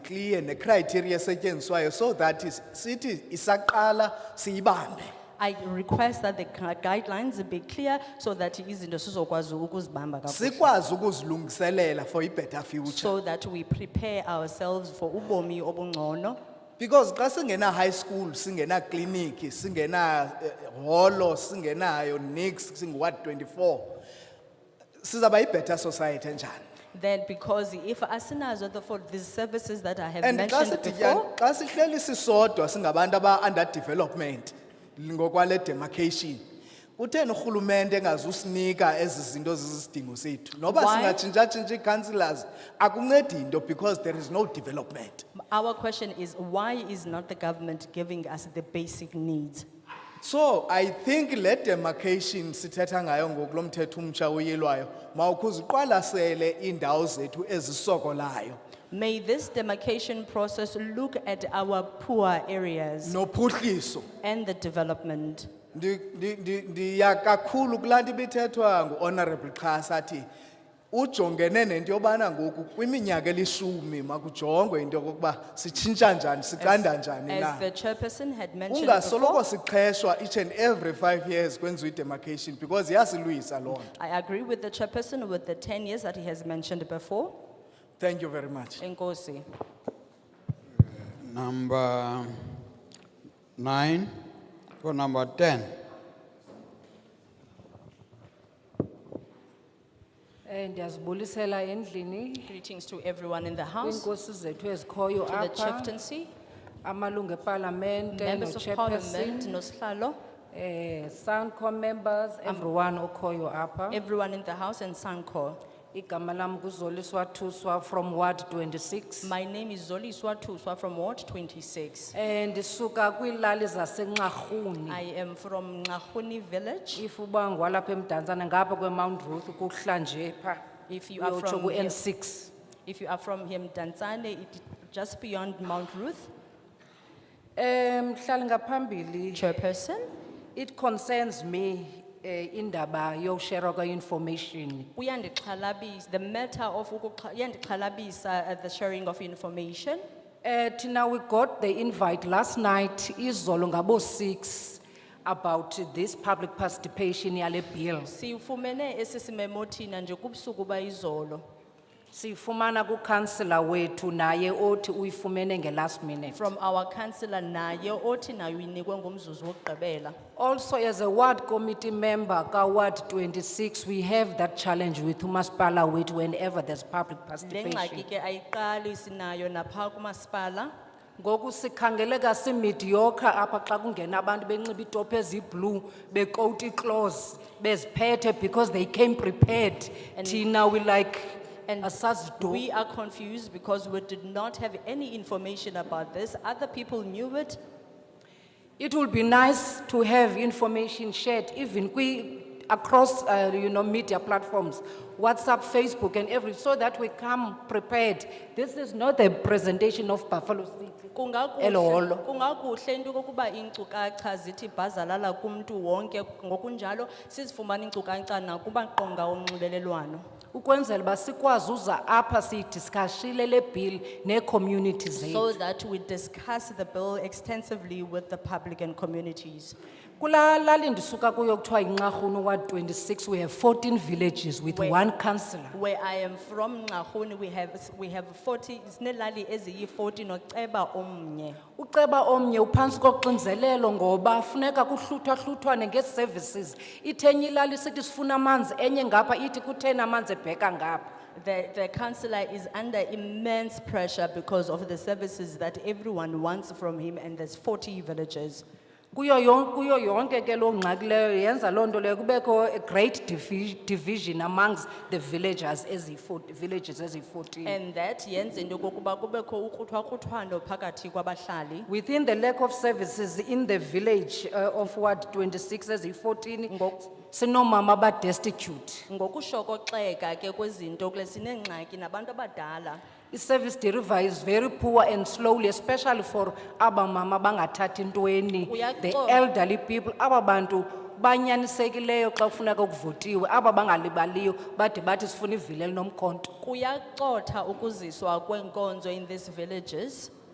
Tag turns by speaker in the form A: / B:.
A: clear necriteria esetyenziswayo so that is- sithi isaqala siyibambe.
B: I request that the gu- guidelines be clear so that izinto sizokwazi ukuzibamba kakuhle.
A: Sikwazi ukuzilungiselela for a better future.
B: So that we prepare ourselves for ubomi obungcono.
A: Because xa singena high school, singena clinic, singena eh, holo, singenayo nix, singu what twenty-four. Sizaba a better society njani?
B: Then because if asinazo the, for these services that I have
A: And xa
B: mentioned before.
A: siditya- xa sihleli sisodwa singabantu aba under development ngokwale demarcation. Kutheni urhulumente engazusinika ezi zinto zizisidingo sethu? Noba
B: Why?
A: singatshintsha-tshintsha ii-councillors, akuncedi into because there is no development.
B: Our question is, why is not the government giving us the basic needs?
A: So I think le demarcation sithetha ngayo ngokulo mthetho umtsha uyilwayo, mawukhuze uqwalasele iindawo zethu ezisokolayo
B: May this demarcation process look at our poor areas
A: nophuhliso.
B: and the development.
A: Ndi, ndi, ndi, ndiya kakhulu kulaa nto ibithethwa ngu-honorable Xhasa athi ujongene nento yobana ngoku kwiminyaka elishumi makujongwe into yokokuba sitshintsha njani siqanda njani
B: As
A: na
B: the chairperson had mentioned
A: ungasoloko
B: before,
A: siqeshwa each and every five years kwenziwa i-demarcation because iyasilwisa loo nto
B: I agree with the chairperson with the ten years that he has mentioned before.
A: thank you very much
B: Enkosi.
C: Number nine or number ten?
D: Eh ndiyazibulisela endlini
B: Greetings to everyone in the house, to
D: inkosi zethu ezikhoyo
B: the
D: apha
B: chieftaincy,
D: amalungu epalamente
B: members of parliament,
D: no-chairperson
B: noslalo,
D: eh Sancom members
B: Um,
D: everyone okhoyo apha
B: everyone in the house and Sanko.
D: igama lam kuzoliswa Thuswa from Ward 26
B: My name is Zoli Swatuswa from Ward twenty-six.
D: eh ndisuka kwiilali zaseNxarhuni
B: I am from Ngahuni village.
D: if uba ngwalapha eMdantsane ngapha kweMount Ruth kuhlanje pha
B: If you are
D: uyotsho
B: from here-
D: ku-N6
B: If you are from here, Mdantsane, it is just beyond Mount Ruth.
D: eh mhlali ngaphambili
B: Chairperson,
D: It concerns me eh indaba yokushare kweinformation.
B: uyandixhalabisa, the matter of ukukha- uyandixhalabisa, uh, the sharing of information.
D: Eh tina we got the invite last night izolo ngabo 6 about this public participation yale bill.
B: Siyifumene esisimemo thina nje kubusuku bayizolo.
D: Sifumana ku councillor wethu naye othi uyifumene nge last minute.
B: From our councillor naye othi naye uyinikwe ngomzuzu wokugqibela.
D: Also as a ward committee member ka ward 26 we have that challenge with umaspala wethu whenever there's public
B: Le ngxaki
D: participation.
B: ke ayiqali sinayo napha kumasipala.
D: Ngoku sikhangeleka simediocre apha xa kungena abantu benxiba iitopi eziblue, becoat iclothes, beziphethe because they came prepared. Tina we like
B: And
D: asazido.
B: We are confused because we did not have any information about this. Other people knew it.
D: It will be nice to have information shared even kwi, across, uh, you know, media platforms, WhatsApp, Facebook and every, so that we come prepared. This is not a presentation of Buffalo City.
B: Kungakuhle,
D: Elolo.
B: kungakuhle into kokuba inkcukacha zithi bhazalala kumntu wonke ngokunjalo sizifumana inkcukacha nakumaqonga onxibelelwano.
D: Ukwenzela uba sikwazi uza apha siyidiscashile le bill nee-community zethu.
B: So that we discuss the bill extensively with the public and communities.
D: Kula lali ndisuka kuyo kuthiwa inxarhunu Ward 26 we have 14 villages with
B: Where-
D: one councillor.
B: Where I am from, Ngahuni, we have, we have forty, sinelali eziyi forty noceba omnye.
D: Uceba omnye uphantsi koxinzelelo ngoba funeka kuhluthwa-hluthwane ngee-services. Ithenye ilali sithi sifuna amanzi enye ngapha ithi kutheni amanzi ebheka ngapha.
B: The, the councillor is under immense pressure because of the services that everyone wants from him and there's forty villages.
D: Kuyo yon, kuyo yonke ke loo ngxaki leyo yenza loo nto leyo kubekho a great divi- division amongst the villagers eziyi-four- villages eziyi-fourteen.
B: And that yenze into kokuba kubekho ukruthwa-kruthwano phakathi kwabahlali.
D: Within the lack of services in the village uh, of Ward 26 eziyi-14,
B: Ngoku-
D: sinomama abadestitute.
B: Ngokushokoxeka ke kwezinto kule sinengxaki nabantu abadala.
D: I-service delivery is very poor and slowly, especially for abamama bangathathi ntweni, the
B: Uyaxolo.
D: elderly people, aba bantu banyanisekileyo xa kufuneka kuvotiwe aba bangalibaliyo bade bathi sifuna ivili elinomkhonto
B: Kuyacotha ukuziswa kwenkonzo in these villages.